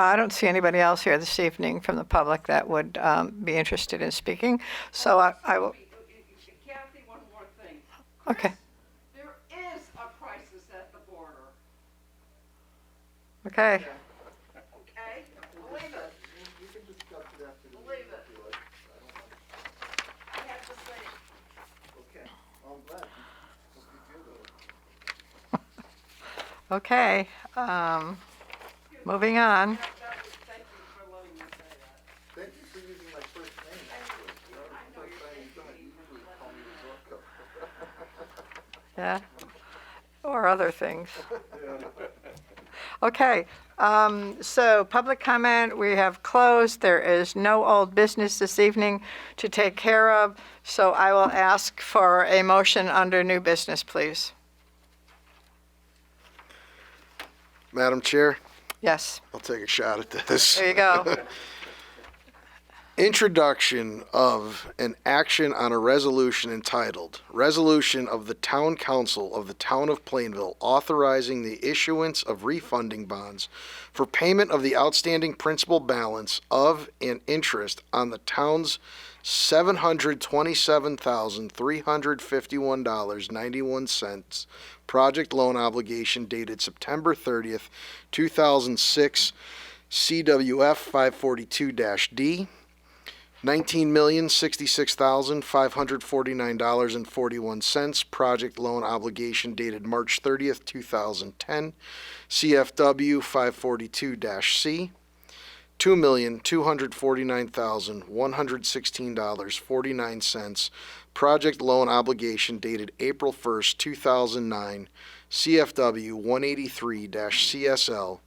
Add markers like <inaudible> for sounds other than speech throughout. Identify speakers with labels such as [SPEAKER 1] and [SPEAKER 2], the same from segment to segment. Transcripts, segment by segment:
[SPEAKER 1] I don't see anybody else here this evening from the public that would um, be interested in speaking, so I I will,
[SPEAKER 2] Kathy, one more thing.
[SPEAKER 1] okay,
[SPEAKER 2] There is a crisis at the border,
[SPEAKER 1] okay.
[SPEAKER 2] okay? Believe it. Believe it. I have to say,
[SPEAKER 1] Okay, um, moving on.
[SPEAKER 2] that, that was, thank you for letting me say that.
[SPEAKER 3] Thank you for using my first name.
[SPEAKER 2] I know you're thinking,
[SPEAKER 1] Yeah, or other things. Okay, um, so public comment, we have closed. There is no old business this evening to take care of, so I will ask for a motion under new business, please.
[SPEAKER 3] Madam Chair,
[SPEAKER 1] Yes,
[SPEAKER 3] I'll take a shot at this.
[SPEAKER 1] there you go.
[SPEAKER 3] Introduction of an action on a resolution entitled Resolution of the Town Council of the Town of Plainville authorizing the issuance of refunding bonds for payment of the outstanding principal balance of and interest on the town's $727,351.91 project loan obligation dated September 30th, 2006, CWF 542-D. Nineteen million sixty-six thousand five hundred forty-nine dollars and forty-one cents. Project loan obligation dated March thirtieth, two thousand ten. CFW five forty-two C. Two million two hundred forty-nine thousand one hundred sixteen dollars forty-nine cents. Project loan obligation dated April first, two thousand nine. CFW one eighty-three CSL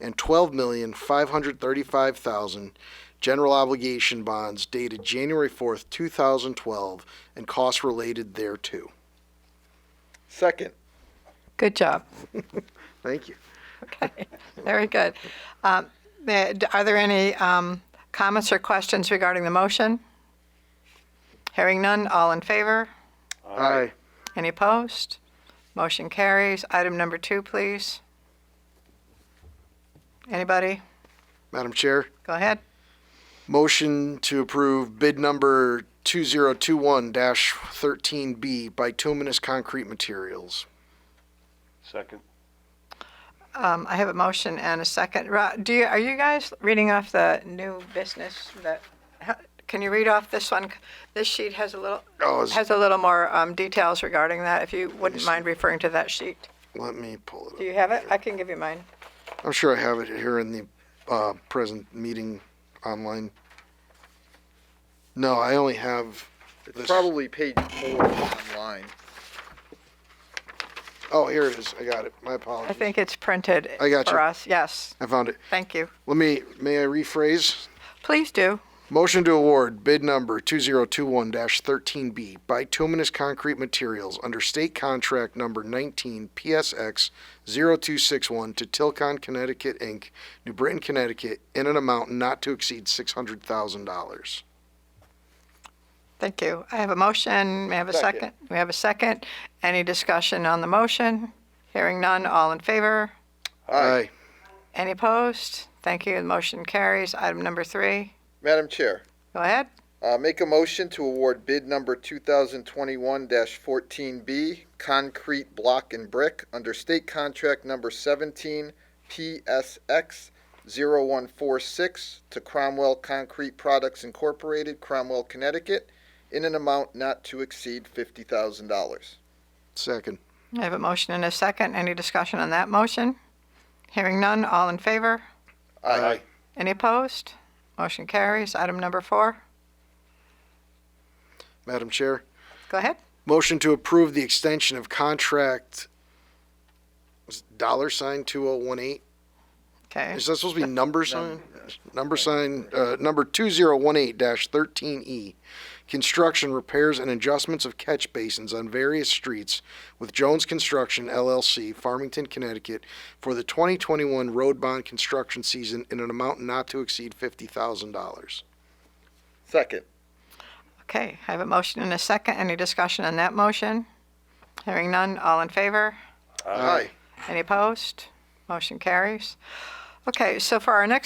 [SPEAKER 3] and twelve million five hundred thirty-five thousand general obligation bonds dated January 4th, 2012, and costs related thereto. Second.
[SPEAKER 1] <laughs> Good job.
[SPEAKER 3] Thank you.
[SPEAKER 1] Okay, very good. Um, the- d- Are there any um, comments or questions regarding the motion? Hearing none, all in favor?
[SPEAKER 3] Aye.
[SPEAKER 1] Any opposed? Motion carries. Item number two, please. Anybody?
[SPEAKER 3] Madam Chair,
[SPEAKER 1] Go ahead.
[SPEAKER 3] motion to approve bid number 2021-13B bituminous concrete materials.
[SPEAKER 4] Second.
[SPEAKER 1] Um, I have a motion and a second. Ro- Do you, are you guys reading off the new business that, ha- can you read off this one? This sheet has a little,
[SPEAKER 3] Oh, is-
[SPEAKER 1] has a little more um, details regarding that, if you wouldn't mind referring to that sheet.
[SPEAKER 3] Let me pull
[SPEAKER 1] Do
[SPEAKER 3] it up.
[SPEAKER 1] you have it? I can give you mine.
[SPEAKER 3] I'm sure I have it here in the uh, present meeting online. No, I only have
[SPEAKER 5] It's
[SPEAKER 3] this.
[SPEAKER 5] probably page four online.
[SPEAKER 3] Oh, here it is. I got it. My apologies.
[SPEAKER 1] I think it's printed
[SPEAKER 3] I got
[SPEAKER 1] for
[SPEAKER 3] you.
[SPEAKER 1] us. Yes,
[SPEAKER 3] I found it.
[SPEAKER 1] thank you.
[SPEAKER 3] Let me, may I rephrase?
[SPEAKER 1] Please do.
[SPEAKER 3] Motion to award bid number 2021-13B bituminous concrete materials under state contract number 19 PSX 0261 to Tilcon Connecticut Inc., New Britain, Connecticut, in an amount not to exceed $600,000.
[SPEAKER 1] Thank you. I have a motion. May I have a second? We have a second. Any discussion on the motion? Hearing none, all in favor?
[SPEAKER 3] Aye.
[SPEAKER 1] Any opposed? Thank you. The motion carries. Item number three.
[SPEAKER 5] Madam Chair,
[SPEAKER 1] Go ahead.
[SPEAKER 5] uh, make a motion to award bid number two thousand twenty-one fourteen B, concrete block and brick, under state contract number seventeen PSX 146 to Cromwell Concrete Products Incorporated, Cromwell, Connecticut, in an amount not to exceed fifty thousand dollars.
[SPEAKER 3] Second.
[SPEAKER 1] I have a motion and a second. Any discussion on that motion? Hearing none, all in favor?
[SPEAKER 3] Aye.
[SPEAKER 1] Any opposed? Motion carries. Item number four.
[SPEAKER 3] Madam Chair,
[SPEAKER 1] Go ahead.
[SPEAKER 3] motion to approve the extension of contract was it dollar sign 2018
[SPEAKER 1] Okay.
[SPEAKER 3] Is that supposed to be number sign? Number sign, uh, number two zero one eight dash thirteen E. Construction, repairs, and adjustments of catch basins on various streets with Jones Construction LLC, Farmington, Connecticut, for the twenty twenty-one road bond construction season in an amount not to exceed fifty thousand dollars.
[SPEAKER 5] Second.
[SPEAKER 1] Okay, I have a motion and a second. Any discussion on that motion? Hearing none, all in favor?
[SPEAKER 3] Aye.
[SPEAKER 1] Any opposed? Motion carries. Okay, so for our next